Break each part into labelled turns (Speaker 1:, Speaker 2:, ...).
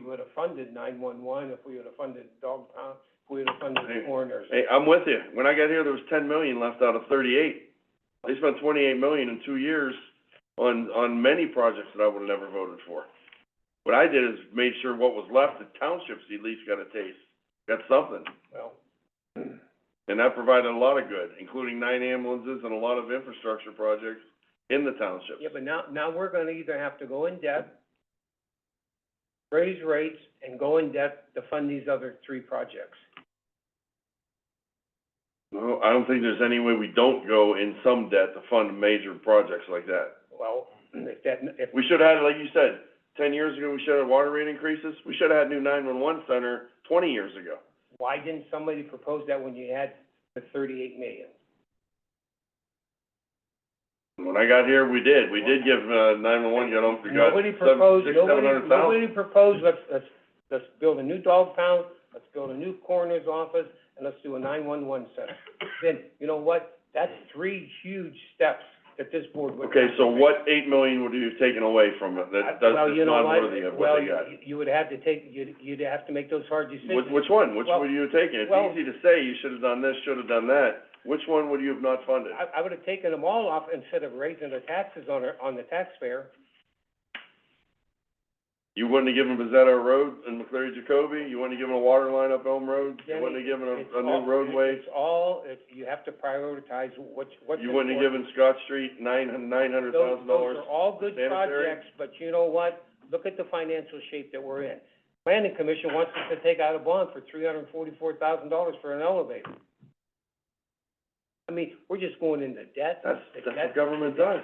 Speaker 1: would have funded nine-one-one, if we would have funded dog pound, if we would have funded
Speaker 2: Hey,
Speaker 1: coroners.
Speaker 2: Hey, I'm with you. When I got here, there was ten million left out of thirty-eight. They spent twenty-eight million in two years on, on many projects that I would've never voted for. What I did is made sure what was left, the townships at least got a taste, got something.
Speaker 1: Well,
Speaker 2: And that provided a lot of good, including nine ambulances and a lot of infrastructure projects in the township.
Speaker 1: yeah, but now, now we're gonna either have to go in debt, raise rates, and go in debt to fund these other three projects.
Speaker 2: No, I don't think there's any way we don't go in some debt to fund major projects like that.
Speaker 1: Well, if that, if,
Speaker 2: We should've had, like you said, ten years ago, we should've had water rate increases. We should've had new nine-one-one center twenty years ago.
Speaker 1: why didn't somebody propose that when you had the thirty-eight million?
Speaker 2: When I got here, we did. We did give, uh, nine-one-one, got them, we got
Speaker 1: Nobody
Speaker 2: seven,
Speaker 1: proposed,
Speaker 2: six, seven
Speaker 1: nobody,
Speaker 2: hundred thousand.
Speaker 1: nobody proposed, let's, let's, let's build a new dog pound, let's build a new coroner's office, and let's do a nine-one-one center. Then, you know what, that's three huge steps that this board would.
Speaker 2: Okay, so what eight million would you have taken away from it? That, that's
Speaker 1: Well,
Speaker 2: just
Speaker 1: you know
Speaker 2: not
Speaker 1: what?
Speaker 2: worthy of what they got.
Speaker 1: Well, you, you would have to take, you'd, you'd have to make those hard decisions.
Speaker 2: Which, which one? Which
Speaker 1: Well-
Speaker 2: would you have taken? It's
Speaker 1: well-
Speaker 2: easy to say, you should've done this, should've done that. Which one would you have not funded?
Speaker 1: I, I would have taken them all off instead of raising the taxes on, our- on the taxpayer.
Speaker 2: You wouldn't have given Bezetta a road in McCleary Jacoby, you wouldn't have given a water line up Elm Road, you
Speaker 1: Danny,
Speaker 2: wouldn't have given
Speaker 1: It's
Speaker 2: a, a
Speaker 1: all-
Speaker 2: new roadway,
Speaker 1: It's all, if, you have to prioritize what, what's important.
Speaker 2: you wouldn't have given Scott Street nine, nine hundred
Speaker 1: Those,
Speaker 2: thousand
Speaker 1: those
Speaker 2: dollars.
Speaker 1: are all good
Speaker 2: sanitary.
Speaker 1: projects, but you know what? Look at the financial shape that we're in. Planning Commission wants us to take out a bond for three hundred and forty-four thousand dollars for an elevator. I mean, we're just going into debt.
Speaker 2: That's,
Speaker 1: The
Speaker 2: that's
Speaker 1: debt-
Speaker 2: what government does.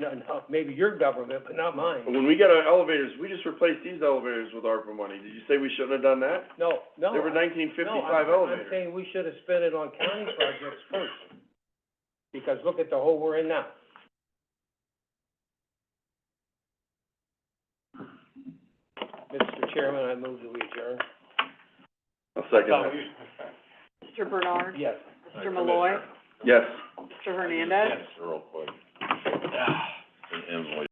Speaker 1: No, no, maybe your government, but not mine.
Speaker 2: When we got our elevators, we just replaced these elevators with ARPA money. Did you say we shouldn't have done that?
Speaker 1: No, no.
Speaker 2: They were nineteen
Speaker 1: No,
Speaker 2: fifty-five
Speaker 1: I'm-
Speaker 2: elevators.
Speaker 1: I'm saying we should have spent it on county projects first, because look at the hole we're in now. Mr. Chairman, I move that we adjourn.
Speaker 2: I'll second that.
Speaker 3: Mr. Bernard,
Speaker 1: Yes.
Speaker 3: Mr. Malloy,
Speaker 2: Yes.
Speaker 3: Mr. Hernandez.
Speaker 4: Real quick. And Emily.